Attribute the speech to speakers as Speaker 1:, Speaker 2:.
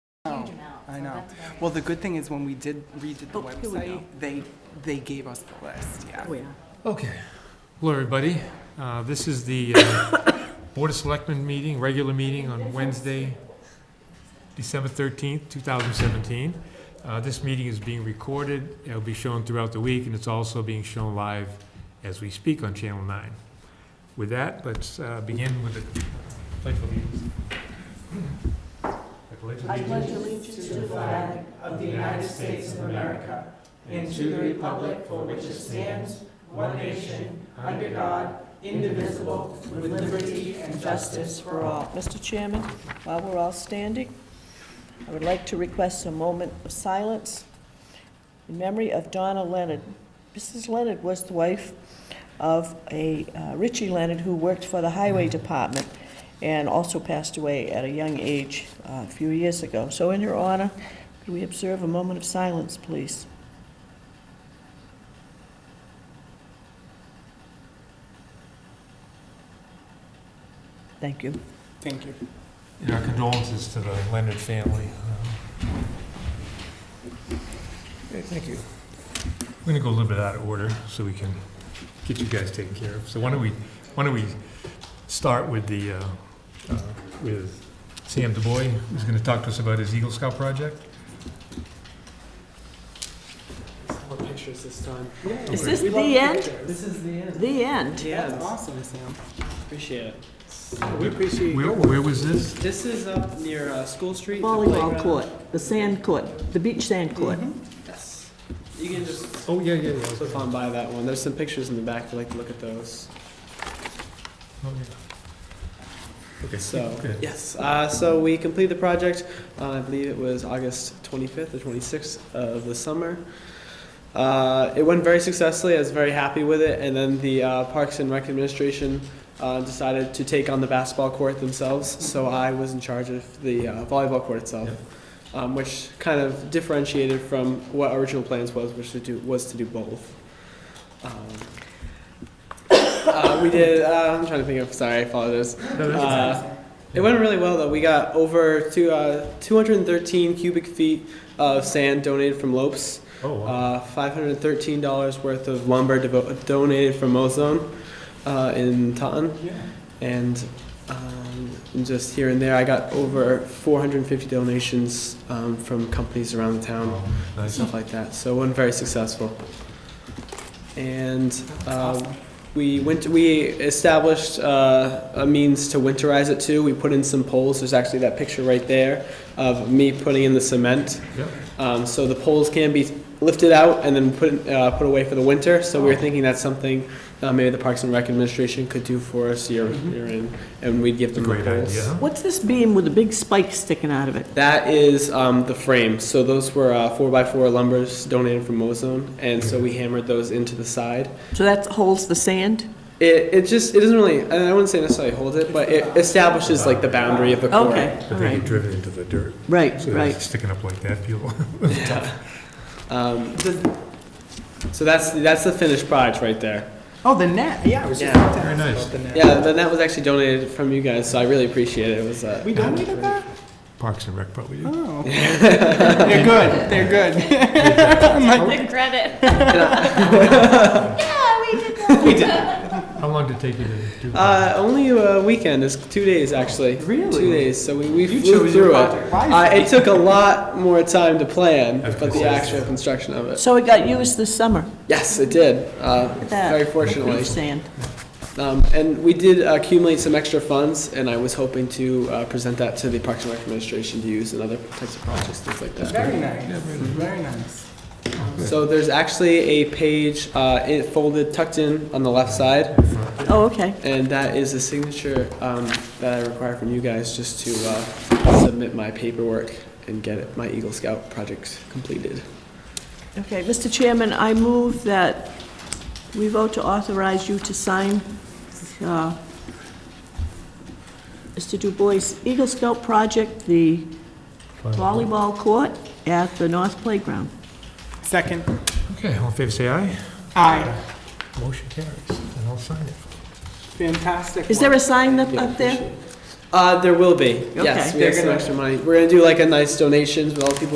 Speaker 1: huge
Speaker 2: No,
Speaker 1: amount,
Speaker 2: I
Speaker 1: so
Speaker 2: know.
Speaker 1: that's about it.
Speaker 2: Well, the good thing is when we did redid the
Speaker 3: Oh, here we
Speaker 2: website,
Speaker 3: go.
Speaker 2: they, they gave us the list, yeah.
Speaker 3: Oh, yeah.
Speaker 4: Okay. Hello, everybody. Uh, This is the uh, Board of Selectmen meeting, regular meeting on Wednesday, December 13th, 2017. Uh, This meeting is being recorded. It'll be shown throughout the week, and it's also being shown live as we speak on Channel 9. With that, let's uh, begin with the pledge of allegiance. I pledge allegiance
Speaker 3: Mr. Chairman, while we're all standing, I would like to request a moment of silence in memory of Donna Leonard. Mrs. Leonard was the wife of a uh, Richie Leonard who worked for the Highway Department and also passed away at a young age uh, a few years ago. So in your honor, could we observe a moment of silence, please? Thank you.
Speaker 2: Thank you.
Speaker 4: And Our condolences to the Leonard family. Okay, thank you. We're gonna go a little bit out of order so we can get you guys taken care of. So why don't we, why don't we start with the, uh, uh, with Sam DeBoy, who's gonna talk to us about his Eagle Scout project?
Speaker 5: More pictures this time.
Speaker 3: Is this the end?
Speaker 2: This is the end.
Speaker 3: The end?
Speaker 2: That's awesome, Sam.
Speaker 5: Appreciate it. We appreciate
Speaker 4: Where, where was this?
Speaker 5: This is up near uh, School Street. the
Speaker 3: Volleyball
Speaker 5: playground.
Speaker 3: court, the sand court, the beach sand court.
Speaker 5: Yes. You can just
Speaker 4: Oh, yeah, yeah, yeah. okay.
Speaker 5: flip on by that one. There's some pictures in the back if you'd like to look at those.
Speaker 4: Oh, yeah. Okay.
Speaker 5: So,
Speaker 4: good.
Speaker 5: yes, uh, so we completed the project, uh, I believe it was August 25th or 26th of the summer. Uh, It went very successfully, I was very happy with it, and then the uh, Parks and Rec Administration uh, decided to take on the basketball court themselves, so I was in charge of the uh, volleyball court itself, um, which kind of differentiated from what our original plans was, which to do, was to do both. Um, uh, We did, uh, I'm trying to think of, sorry, I apologize.
Speaker 4: No, that's-
Speaker 5: Uh, it went really well though. We got over to uh, 213 cubic feet of sand donated from Lopes,
Speaker 4: Oh, wow.
Speaker 5: uh, 513 dollars worth of lumber devo- donated from Ozone uh, in Taunton, and um, just here and there, I got over 450 donations um, from companies around the town
Speaker 4: Oh,
Speaker 5: and
Speaker 4: nice.
Speaker 5: stuff like that. So it wasn't very successful. And um, we went, we established uh, a means to winterize it too. We put in some poles. There's actually that picture right there of me putting in the cement.
Speaker 4: Yep.
Speaker 5: Um, so the poles can be lifted out and then put, uh, put away for the winter. So we were thinking that's something uh, maybe the Parks and Rec Administration could do for us year, year in, and we'd give
Speaker 4: It's a
Speaker 5: them the
Speaker 4: great
Speaker 5: poles.
Speaker 4: idea. huh?
Speaker 3: What's this beam with a big spike sticking out of it?
Speaker 5: That is um, the frame. So those were uh, four by four lumbers donated from Mozone, and so we hammered those into the side.
Speaker 3: So that holds the sand?
Speaker 5: It, it just it doesn't really. I wouldn't say necessarily hold it, but it establishes like the boundary of the court.
Speaker 3: Okay, all
Speaker 4: But they get
Speaker 3: right.
Speaker 4: driven into the dirt.
Speaker 3: Right,
Speaker 4: So they're
Speaker 3: right.
Speaker 4: sticking up like that, people.
Speaker 5: Um, so that's that's the finished product right there.
Speaker 2: Oh, the net, yeah, I was just
Speaker 5: Yeah.
Speaker 2: about to
Speaker 4: Very
Speaker 2: ask
Speaker 4: nice.
Speaker 2: about the net.
Speaker 5: Yeah, then that was actually donated from you guys, so I really appreciate it. It was uh,
Speaker 2: We donated that?
Speaker 4: Parks and Rec probably did.
Speaker 2: Oh. They're good, they're good.
Speaker 1: The credit. Yeah, we did that.
Speaker 4: How long did it take you to do that?
Speaker 5: Uh, only a weekend. It's two days actually.
Speaker 2: Really?
Speaker 5: Two days. So we, we
Speaker 2: You
Speaker 5: flew
Speaker 2: chose your
Speaker 5: through
Speaker 2: project
Speaker 5: it. Uh,
Speaker 2: wisely.
Speaker 5: it took a lot more time to plan,
Speaker 4: I was
Speaker 5: but
Speaker 4: gonna
Speaker 5: the
Speaker 4: say.
Speaker 5: actual construction of it.
Speaker 3: So it got used this summer,
Speaker 5: Yes, it did. Uh,
Speaker 3: at that.
Speaker 5: very
Speaker 3: Beach
Speaker 5: fortunately.
Speaker 3: sand.
Speaker 5: Um, and we did accumulate some extra funds, and I was hoping to uh, present that to the Parks and Rec Administration to use in other types of projects, things like that.
Speaker 2: Very nice, very nice.
Speaker 5: So there's actually a page uh, it folded, tucked in on the left side.
Speaker 3: Oh, okay.
Speaker 5: And that is a signature um, that I require from you guys just to uh, submit my paperwork and get it- my Eagle Scout project completed.
Speaker 3: Okay, Mr. Chairman, I move that we vote to authorize you to sign uh, Mr. Du Bois Eagle Scout Project, the volleyball court at the North Playground.
Speaker 2: Second,
Speaker 4: Okay, all in favor, say aye.
Speaker 2: aye,
Speaker 4: Motion carries, and I'll sign it.
Speaker 2: fantastic.
Speaker 3: Is there a sign up up there?
Speaker 5: Appreciate it. Uh, there will be. Yes,
Speaker 3: Okay.
Speaker 5: we have some extra money. We're gonna do like a nice donations with all the people